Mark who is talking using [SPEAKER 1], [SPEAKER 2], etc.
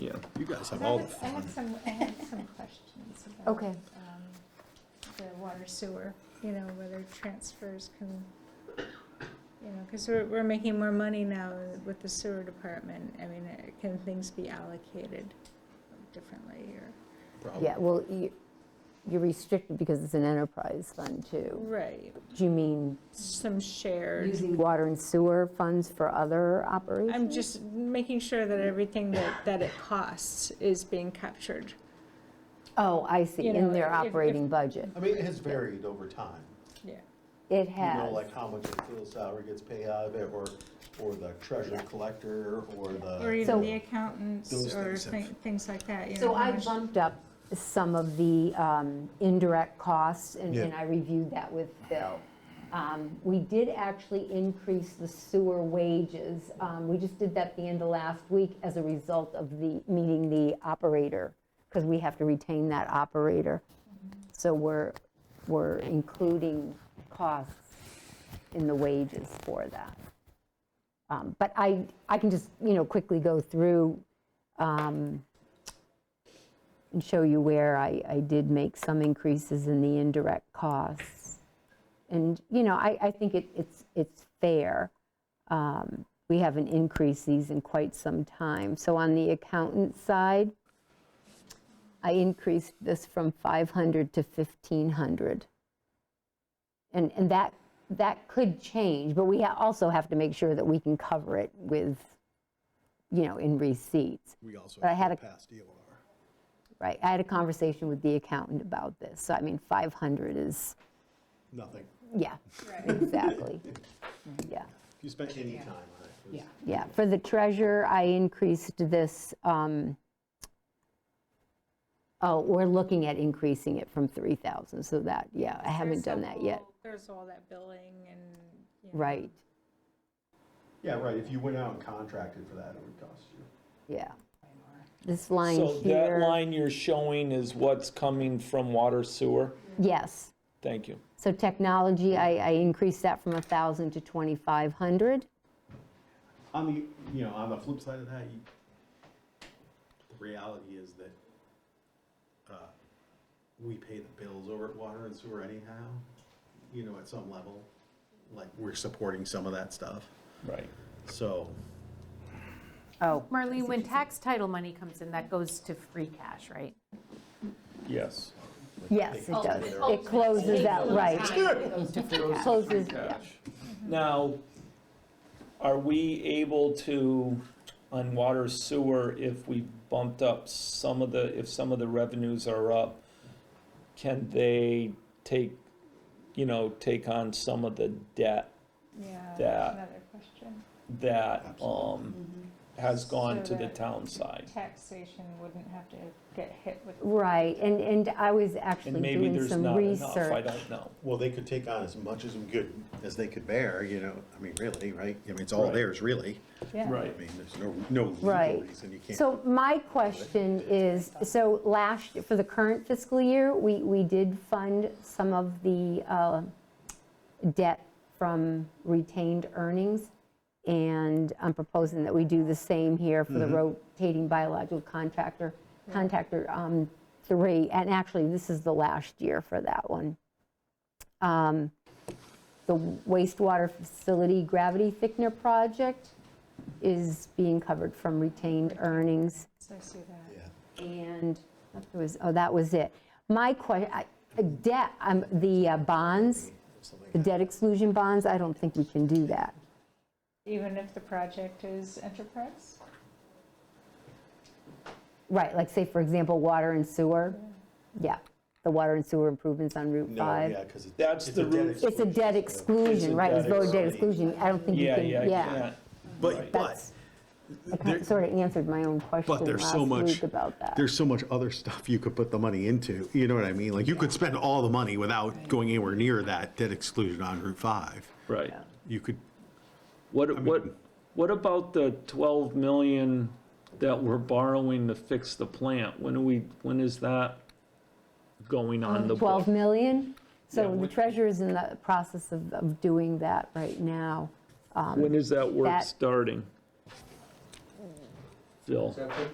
[SPEAKER 1] Yeah, you guys have
[SPEAKER 2] I
[SPEAKER 1] all the
[SPEAKER 2] have- I
[SPEAKER 1] fun.
[SPEAKER 2] have some, I have some questions about.
[SPEAKER 3] Okay.
[SPEAKER 2] um, The water sewer, you know, whether transfers can, you know, because we're, we're making more money now with the sewer department. I mean, uh, can things be allocated differently or?
[SPEAKER 1] probably.
[SPEAKER 3] Yeah, well, you- you're restricted because it's an enterprise fund too.
[SPEAKER 2] Right,
[SPEAKER 3] Do you mean
[SPEAKER 2] some shared.
[SPEAKER 3] using water and sewer funds for other operations?
[SPEAKER 2] I'm just making sure that everything that, that it costs is being captured.
[SPEAKER 3] Oh, I see,
[SPEAKER 2] you know,
[SPEAKER 3] in their
[SPEAKER 2] if- if-
[SPEAKER 3] operating budget.
[SPEAKER 4] I mean, it has varied over time.
[SPEAKER 2] Yeah.
[SPEAKER 3] It
[SPEAKER 4] You
[SPEAKER 3] has.
[SPEAKER 4] know, like how much the field salary gets paid out of it, or, or the treasure collector, or
[SPEAKER 2] Or
[SPEAKER 4] the,
[SPEAKER 3] So-
[SPEAKER 2] even the accountants
[SPEAKER 1] Those
[SPEAKER 2] or
[SPEAKER 1] things have-
[SPEAKER 2] thi- things like that, you know.
[SPEAKER 3] So
[SPEAKER 2] how
[SPEAKER 3] I
[SPEAKER 2] much-
[SPEAKER 3] bumped up some of the um, indirect costs, and
[SPEAKER 1] Yeah.
[SPEAKER 3] and I reviewed that with Phil. Um, We did actually increase the sewer wages. Um, We just did that at the end of last week as a result of the, meeting the operator, because we have to retain that operator. So we're, we're including costs in the wages for that. Um, But I, I can just, you know, quickly go through um, and show you where I, I did make some increases in the indirect costs. And, you know, I, I think it, it's, it's fair. Um, We haven't increased these in quite some time. So on the accountant side, I increased this from 500 to 1,500. And, and that, that could change, but we ha- also have to make sure that we can cover it with, you know, in receipts.
[SPEAKER 1] We also
[SPEAKER 3] But I
[SPEAKER 1] have
[SPEAKER 3] had
[SPEAKER 1] to
[SPEAKER 3] a-
[SPEAKER 1] pass DOR.
[SPEAKER 3] Right, I had a conversation with the accountant about this, so I mean, 500 is,
[SPEAKER 1] Nothing.
[SPEAKER 3] yeah, exactly. Yeah,
[SPEAKER 1] If you spent any time on it. it was-
[SPEAKER 3] yeah, for the treasurer, I increased this, um, oh, we're looking at increasing it from 3,000, so that, yeah, I haven't
[SPEAKER 2] There's the
[SPEAKER 3] done that yet,
[SPEAKER 2] whole- There's all that billing and. you know.
[SPEAKER 3] right,
[SPEAKER 4] yeah, right, if you went out and contracted for that, it would cost you.
[SPEAKER 3] yeah. This line
[SPEAKER 5] So that
[SPEAKER 3] here,
[SPEAKER 5] line you're showing is what's coming from water sewer?
[SPEAKER 3] yes.
[SPEAKER 5] Thank you.
[SPEAKER 3] So technology, I, I increased that from 1,000 to 2,500.
[SPEAKER 1] On the, you know, on the flip side of that, you, the reality is that, uh, we pay the bills over at water and sewer anyhow, you know, at some level, like, we're supporting some of that stuff,
[SPEAKER 5] Right.
[SPEAKER 1] so.
[SPEAKER 3] Oh,
[SPEAKER 6] Marlene, when tax title money comes in, that goes to free cash, right?
[SPEAKER 5] Yes.
[SPEAKER 3] yes, it does. It closes out, right. Closes, yeah.
[SPEAKER 2] Mm-hmm.
[SPEAKER 5] Now, are we able to, on water sewer, if we bumped up some of the, if some of the revenues are up, can they take, you know, take on some of the debt
[SPEAKER 2] Yeah,
[SPEAKER 5] That-
[SPEAKER 2] that's another question.
[SPEAKER 5] that um, has gone to
[SPEAKER 2] Mm-hmm. So
[SPEAKER 5] the
[SPEAKER 2] that-
[SPEAKER 5] town side?
[SPEAKER 2] Taxation wouldn't have to get hit with.
[SPEAKER 3] Right, and, and I was
[SPEAKER 5] And
[SPEAKER 3] actually
[SPEAKER 5] maybe
[SPEAKER 3] doing
[SPEAKER 5] there's
[SPEAKER 3] some
[SPEAKER 5] not enough, I
[SPEAKER 3] research.
[SPEAKER 5] don't know.
[SPEAKER 4] Well, they could take on as much as we could, as they could bear, you know, I mean, really, right? I mean, it's all
[SPEAKER 5] Right.
[SPEAKER 4] theirs, really.
[SPEAKER 2] Yeah.
[SPEAKER 5] Right.
[SPEAKER 4] I mean, there's no, no legal
[SPEAKER 3] Right.
[SPEAKER 4] reason you can't.
[SPEAKER 3] So my question is, so last, for the current fiscal year, we, we did fund some of the uh, debt from retained earnings. And I'm proposing that we do the same here for the rotating biological contractor, contractor um, three. And actually, this is the last year for that one. Um, The wastewater facility gravity thickener project is being covered from retained earnings.
[SPEAKER 2] So I see that.
[SPEAKER 4] Yeah.
[SPEAKER 3] And that was, oh, that was it. My question, debt, um, the uh, bonds, the debt exclusion bonds, I don't think we can do that.
[SPEAKER 2] Even if the project is enterprise?
[SPEAKER 3] Right, like say, for example, water and sewer. Yeah, the water and sewer improvements on Route
[SPEAKER 4] No,
[SPEAKER 3] 5.
[SPEAKER 4] yeah, because it's.
[SPEAKER 5] That's
[SPEAKER 4] it's
[SPEAKER 5] the
[SPEAKER 4] a debt
[SPEAKER 5] root-
[SPEAKER 3] It's a debt exclusion,
[SPEAKER 5] a
[SPEAKER 3] right? It's
[SPEAKER 5] debt
[SPEAKER 3] voted debt exclusion. I don't think you
[SPEAKER 5] Yeah,
[SPEAKER 3] can,
[SPEAKER 5] yeah, I
[SPEAKER 3] yeah.
[SPEAKER 5] can't.
[SPEAKER 4] But, but,
[SPEAKER 3] That's, I kind of sort of answered my own
[SPEAKER 4] but
[SPEAKER 3] question
[SPEAKER 4] there's so
[SPEAKER 3] last
[SPEAKER 4] much,
[SPEAKER 3] week about that.
[SPEAKER 4] there's so much other stuff you could put the money into, you know what I mean? Like, you could spend all the money without going anywhere near that debt exclusion on Route 5.
[SPEAKER 5] Right.
[SPEAKER 4] You could,
[SPEAKER 5] What, what, what about the 12 million that we're borrowing to fix the plant? When are we, when is that going on the?
[SPEAKER 3] 12
[SPEAKER 5] book?
[SPEAKER 3] million? So the
[SPEAKER 5] what-
[SPEAKER 3] treasurer's in the process of, of doing that right now.
[SPEAKER 5] When is that work
[SPEAKER 3] That-
[SPEAKER 5] starting? Phil?